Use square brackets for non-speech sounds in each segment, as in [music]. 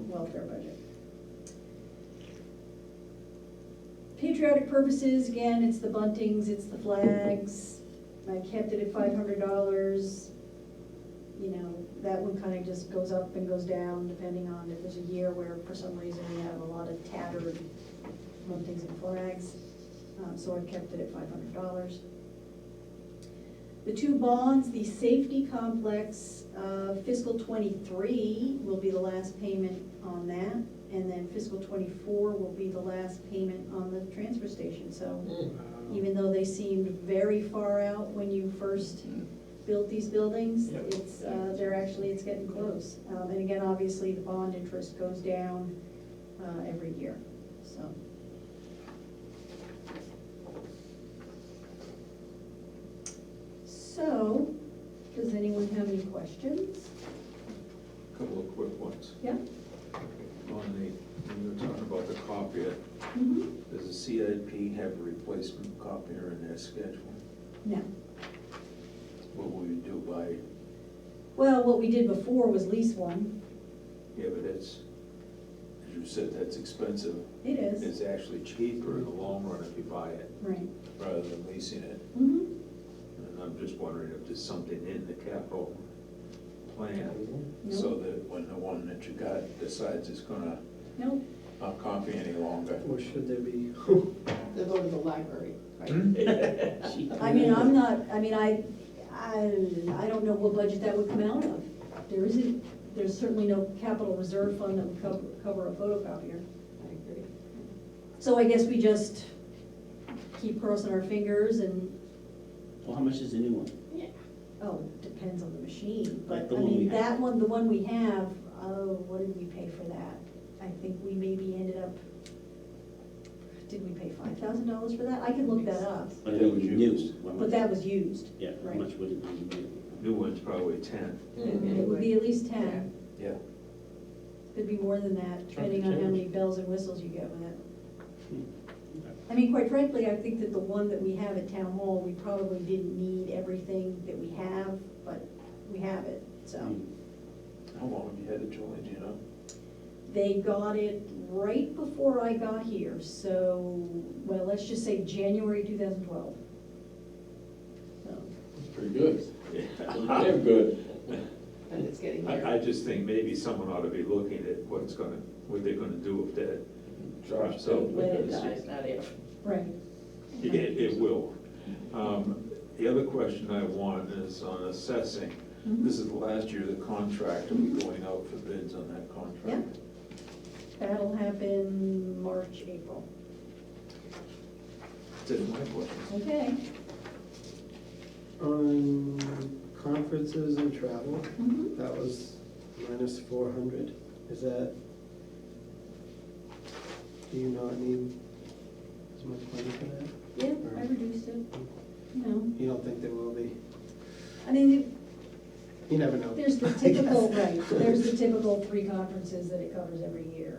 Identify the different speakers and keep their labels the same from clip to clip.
Speaker 1: welfare budget. Patriotic purposes, again, it's the buntings, it's the flags, I kept it at five hundred dollars. You know, that one kind of just goes up and goes down depending on if there's a year where for some reason we have a lot of tattered buntings and flags. Um, so I kept it at five hundred dollars. The two bonds, the safety complex, uh, fiscal twenty-three will be the last payment on that. And then fiscal twenty-four will be the last payment on the transfer station, so
Speaker 2: Mm. Um,
Speaker 1: even though they seemed very far out when you first built these buildings,
Speaker 2: Yep.
Speaker 1: it's, uh, they're actually, it's getting close. Um, And again, obviously, the bond interest goes down uh, every year, so. So, does anyone have any questions?
Speaker 3: Couple of quick ones.
Speaker 1: Yeah?
Speaker 3: On the, when you were talking about the copier,
Speaker 1: Mhm.
Speaker 3: does the CIP have a replacement copier in their schedule?
Speaker 1: No.
Speaker 3: What will you do by,
Speaker 1: Well, what we did before was lease one.
Speaker 3: yeah, but that's, as you said, that's expensive.
Speaker 1: It is,
Speaker 3: It's actually cheaper in the long run if you buy it
Speaker 1: right.
Speaker 3: rather than leasing it.
Speaker 1: Mhm.
Speaker 3: And I'm just wondering if there's something in the capital plan so
Speaker 1: Nope,
Speaker 3: that when the one that you got decides it's gonna
Speaker 1: nope.
Speaker 3: not copy any longer.
Speaker 2: Or should there be? [laughs]
Speaker 4: They go to the library,
Speaker 1: [laughs]
Speaker 4: right?
Speaker 5: Hmm?
Speaker 2: Hmm?
Speaker 1: I mean, I'm not, I mean, I, I, I don't know what budget that would come out of. There isn't, there's certainly no capital reserve fund that would cover, cover a photocopier.
Speaker 4: I agree.
Speaker 1: So I guess we just keep crossing our fingers and,
Speaker 5: Well, how much is the new one?
Speaker 4: Yeah.
Speaker 1: oh, depends on the machine.
Speaker 5: Like
Speaker 1: But,
Speaker 5: the
Speaker 1: I
Speaker 5: one we
Speaker 1: mean,
Speaker 5: have.
Speaker 1: that one, the one we have, oh, what did we pay for that? I think we maybe ended up, did we pay five thousand dollars for that? I can look that up,
Speaker 5: But
Speaker 3: That was
Speaker 5: new,
Speaker 3: used.
Speaker 5: how
Speaker 1: but
Speaker 5: much-
Speaker 1: that was used.
Speaker 5: Yeah, how
Speaker 1: right. Mm-hmm.
Speaker 5: much would it be new?
Speaker 3: New one's probably ten.
Speaker 1: It would be at least ten.
Speaker 3: Yeah.
Speaker 1: Could be more than that, depending on how many bells and whistles you get with it.
Speaker 5: Hmm. Okay.
Speaker 1: I mean, quite frankly, I think that the one that we have at town hall, we probably didn't need everything that we have, but we have it, so.
Speaker 5: Hmm. Mm.
Speaker 3: How long have you had it, Julie, do you know?
Speaker 1: They got it right before I got here, so, well, let's just say January two thousand twelve.
Speaker 5: Oh.
Speaker 1: So,
Speaker 6: Pretty good, pretty damn good.
Speaker 4: And it's getting
Speaker 3: I, I
Speaker 4: there.
Speaker 3: just think maybe someone ought to be looking at what's gonna, what they're gonna do if that,
Speaker 6: Josh,
Speaker 3: So-
Speaker 6: so,
Speaker 4: When it dies, not if.
Speaker 1: Right.
Speaker 3: it, it will. Um, The other question I want is on assessing. This is the last year of the contract, are we going out for bids on that contract?
Speaker 1: That'll happen March, April.
Speaker 3: That's my question.
Speaker 1: Okay.
Speaker 2: On conferences and travel,
Speaker 1: Mhm.
Speaker 2: that was minus four hundred, is that? Do you not need as much money for that?
Speaker 1: Yeah, I reduced it. No,
Speaker 2: You don't think there will be,
Speaker 1: I mean,
Speaker 2: you never know.
Speaker 1: there's the
Speaker 2: [laughs] I guess.
Speaker 1: typical, right, there's
Speaker 2: [laughs]
Speaker 1: the typical three conferences that it covers every year.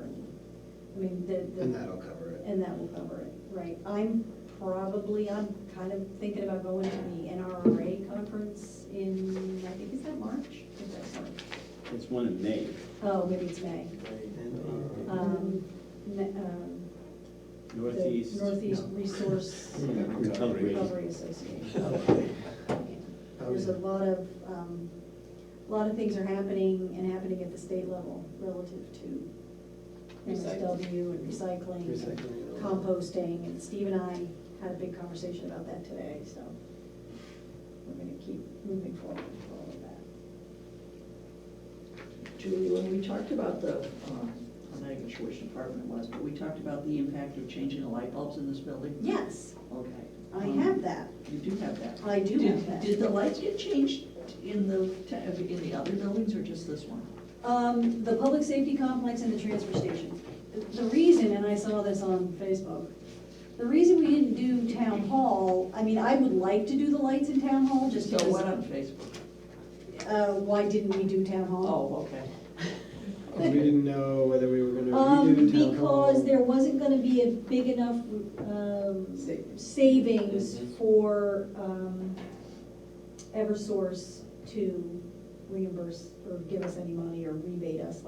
Speaker 1: I mean, the,
Speaker 2: And
Speaker 1: the,
Speaker 2: that'll cover it.
Speaker 1: and that will cover it, right. I'm probably, I'm kind of thinking about going to the NRA conference in, I think, is that March? I think that's March.
Speaker 5: It's one in May.
Speaker 1: Oh, maybe it's May.
Speaker 2: And, [laughs] uh,
Speaker 1: Um, ne- um, the
Speaker 5: Northeast.
Speaker 1: Northeast
Speaker 2: No.
Speaker 1: Resource
Speaker 5: Recovery.
Speaker 1: Recovery Association. Yeah.
Speaker 2: how
Speaker 1: There's
Speaker 2: is
Speaker 1: a
Speaker 2: it?
Speaker 1: lot of, um, a lot of things are happening and happening at the state level relative to MSW and recycling,
Speaker 2: Recycling and all
Speaker 1: and
Speaker 2: that.
Speaker 1: composting, and Steve and I had a big conversation about that today, so we're gonna keep moving forward with all of that.
Speaker 4: Julie, when we talked about the, um, I'm not even sure which department it was, but we talked about the impact of changing the light bulbs in this building.
Speaker 1: Yes,
Speaker 4: Okay.
Speaker 1: I
Speaker 4: Um,
Speaker 1: have that,
Speaker 4: You do have that.
Speaker 1: I do
Speaker 4: Did-
Speaker 1: have that.
Speaker 4: Did the lights get changed in the, ta- in the other buildings or just this one?
Speaker 1: Um, the public safety complex and the transfer station. The- The reason, and I saw this on Facebook, the reason we didn't do town hall, I mean, I would like to do the lights in town hall, just
Speaker 4: So what
Speaker 1: because,
Speaker 4: on Facebook?
Speaker 1: uh, why didn't we do town hall?
Speaker 4: Oh, okay. Oh.
Speaker 2: We didn't know whether we were gonna
Speaker 1: Um,
Speaker 2: redo town hall.
Speaker 1: because there wasn't gonna be a big enough, um,
Speaker 4: Savings. Mm-hmm.
Speaker 1: savings for, um, Eversource to reimburse or give us any money or rebate us